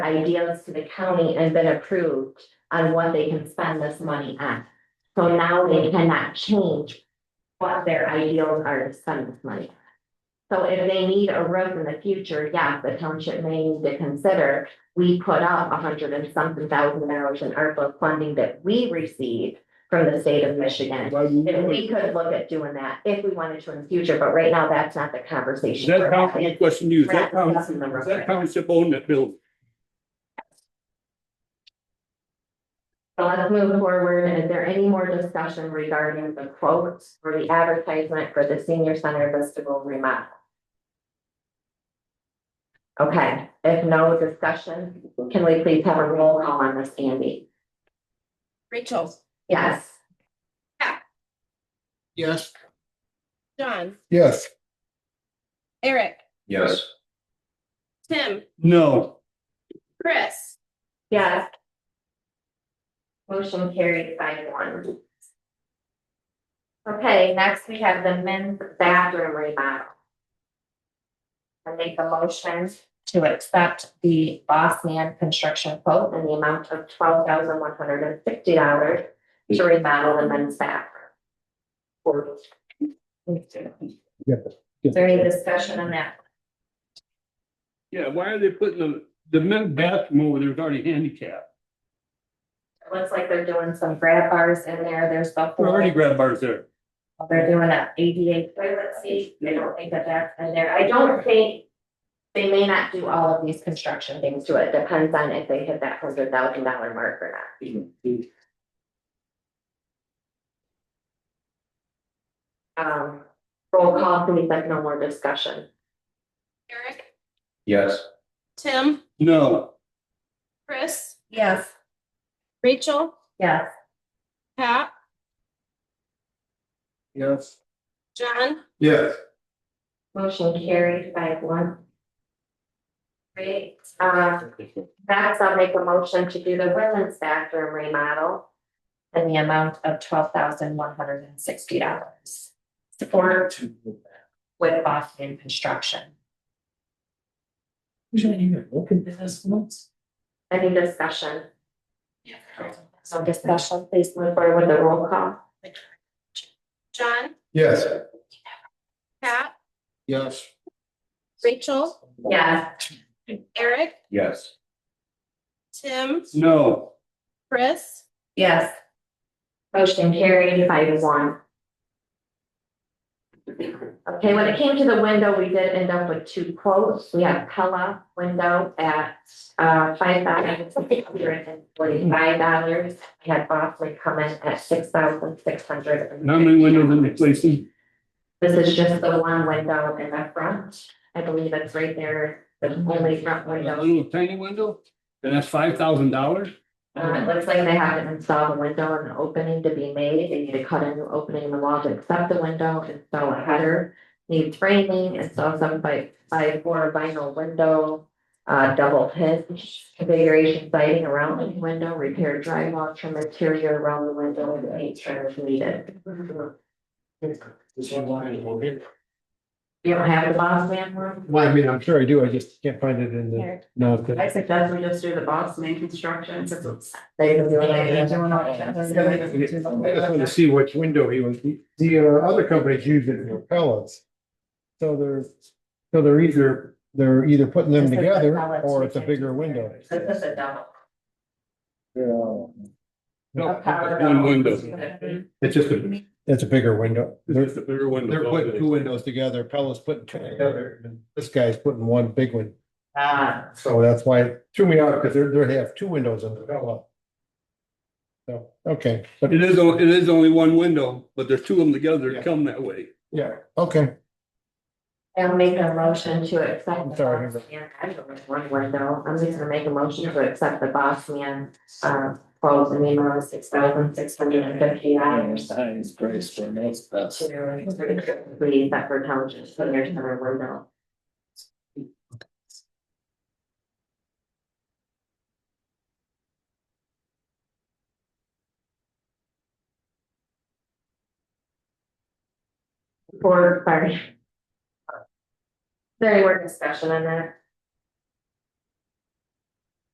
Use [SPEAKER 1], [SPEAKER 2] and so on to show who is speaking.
[SPEAKER 1] ideas to the county and been approved on what they can spend this money on. So now they cannot change what their ideals are to spend this money. on. So if they need a roof in the future, yes, the township may need to consider, we put up a hundred and something thousand dollars in ARPA funding that we received from the state of Michigan.
[SPEAKER 2] Why we-
[SPEAKER 1] And we could look at doing that if we wanted to in the future, but right now, that's not the
[SPEAKER 2] Is
[SPEAKER 1] conversation.
[SPEAKER 2] that
[SPEAKER 1] we're having.
[SPEAKER 2] township, question to you, is
[SPEAKER 1] We're not
[SPEAKER 2] that township,
[SPEAKER 1] discussing the
[SPEAKER 2] is
[SPEAKER 1] road
[SPEAKER 2] that
[SPEAKER 1] right now.
[SPEAKER 2] township owned that building?
[SPEAKER 1] So let's move forward. Is there any more discussion regarding the quotes or the advertisement for the senior center vestibule remodel? Okay, if no discussion, can we please have a roll call on this, Andy?
[SPEAKER 3] Rachel,
[SPEAKER 1] Yes.
[SPEAKER 2] Yes.
[SPEAKER 3] John,
[SPEAKER 2] Yes.
[SPEAKER 3] Eric,
[SPEAKER 4] Yes.
[SPEAKER 3] Tim,
[SPEAKER 2] No.
[SPEAKER 3] Chris,
[SPEAKER 1] Yes. Motion carried by one. Okay, next we have the men's bathroom remodel. I make a motion to accept the Boss Man construction quote in the amount of twelve thousand one hundred and fifty dollars to remodel the men's bathroom. Is there any discussion on that?
[SPEAKER 2] Yeah, why are they putting the, the men bathroom over there is already handicapped.
[SPEAKER 1] It Looks like they're doing some grab bars in there, there's the.
[SPEAKER 2] There are already grab bars there.
[SPEAKER 1] Well, They're doing that ADA toilet seat, I don't think that that's in there, I don't think. They may not do all of these construction things to it, depends on if they hit that hundred thousand dollar mark or not. Um, roll call, please, like no more discussion.
[SPEAKER 3] Eric,
[SPEAKER 4] Yes.
[SPEAKER 3] Tim,
[SPEAKER 2] No.
[SPEAKER 3] Chris,
[SPEAKER 1] Yes.
[SPEAKER 3] Rachel,
[SPEAKER 1] Yes.
[SPEAKER 3] Pat,
[SPEAKER 2] Yes.
[SPEAKER 3] John,
[SPEAKER 4] Yes.
[SPEAKER 1] Motion carried by one. Great, uh, Next, I'll make a motion to do the women's bathroom remodel in the amount of twelve thousand one hundred and sixty dollars. Support with Boston Construction. Any discussion? So discussion, please move forward with the roll call.
[SPEAKER 3] John,
[SPEAKER 4] Yes.
[SPEAKER 3] Pat,
[SPEAKER 4] Yes.
[SPEAKER 3] Rachel,
[SPEAKER 1] Yes.
[SPEAKER 3] Eric,
[SPEAKER 4] Yes.
[SPEAKER 3] Tim,
[SPEAKER 2] No.
[SPEAKER 3] Chris,
[SPEAKER 1] Yes. Motion carried by one. Okay, when it came to the window, we did end up with two quotes. We have Pella window at uh five thousand six hundred and forty-five dollars. We had Boswick come in at six thousand six hundred.
[SPEAKER 2] And how many windows are replacing?
[SPEAKER 1] This is just the one window in the front. I believe it's right there, the only front
[SPEAKER 2] A
[SPEAKER 1] window.
[SPEAKER 2] little tiny window? And that's five thousand dollars?
[SPEAKER 1] Uh, it looks like they haven't installed a window and an opening to be made. They need to cut a new opening in the wall to accept the window, install a header. Need framing, install some by, by four vinyl window, uh, double hinge, configuration siding around the window, repair drywall, trim interior around the window, and paint trim if needed. You don't have the boss man room?
[SPEAKER 5] Well, I mean, I'm sure I do, I just can't find it in the, no, it's
[SPEAKER 6] I suggest we just do the box main construction, since it's.
[SPEAKER 1] They can do
[SPEAKER 6] Yeah,
[SPEAKER 1] it.
[SPEAKER 6] they're not-
[SPEAKER 5] I just wanted to see which window he was, the uh, other companies use it for pellets. So they're, so they're either, they're either putting them
[SPEAKER 1] Just like the
[SPEAKER 5] together
[SPEAKER 1] pellets
[SPEAKER 5] or
[SPEAKER 1] we
[SPEAKER 5] it's a
[SPEAKER 1] can
[SPEAKER 5] bigger
[SPEAKER 1] do.
[SPEAKER 5] window.
[SPEAKER 1] So this is a double.
[SPEAKER 2] No,
[SPEAKER 1] A power
[SPEAKER 2] One
[SPEAKER 1] double.
[SPEAKER 2] window.
[SPEAKER 5] It's just a, it's a bigger window. They're,
[SPEAKER 2] There's the bigger window.
[SPEAKER 5] they're putting two windows together, pellets putting two together, and this guy's putting one big one.
[SPEAKER 1] Ah,
[SPEAKER 5] So that's why it threw me off, because they're, they're- they have two windows in the pellet. So, okay, but
[SPEAKER 2] It is, o- it is only one window, but there's two of them together that come that way.
[SPEAKER 5] yeah, okay.
[SPEAKER 1] I'll make a motion to accept. the
[SPEAKER 5] I'm sorry,
[SPEAKER 1] boss man. I don't know, One window, I'm just gonna make a motion to accept the boss man, uh, quote in the amount of six thousand six hundred and fifty dollars.
[SPEAKER 4] Signs, grace, for most best.
[SPEAKER 1] To please that for township, so there's another window. Or, sorry. Is there any more discussion on that?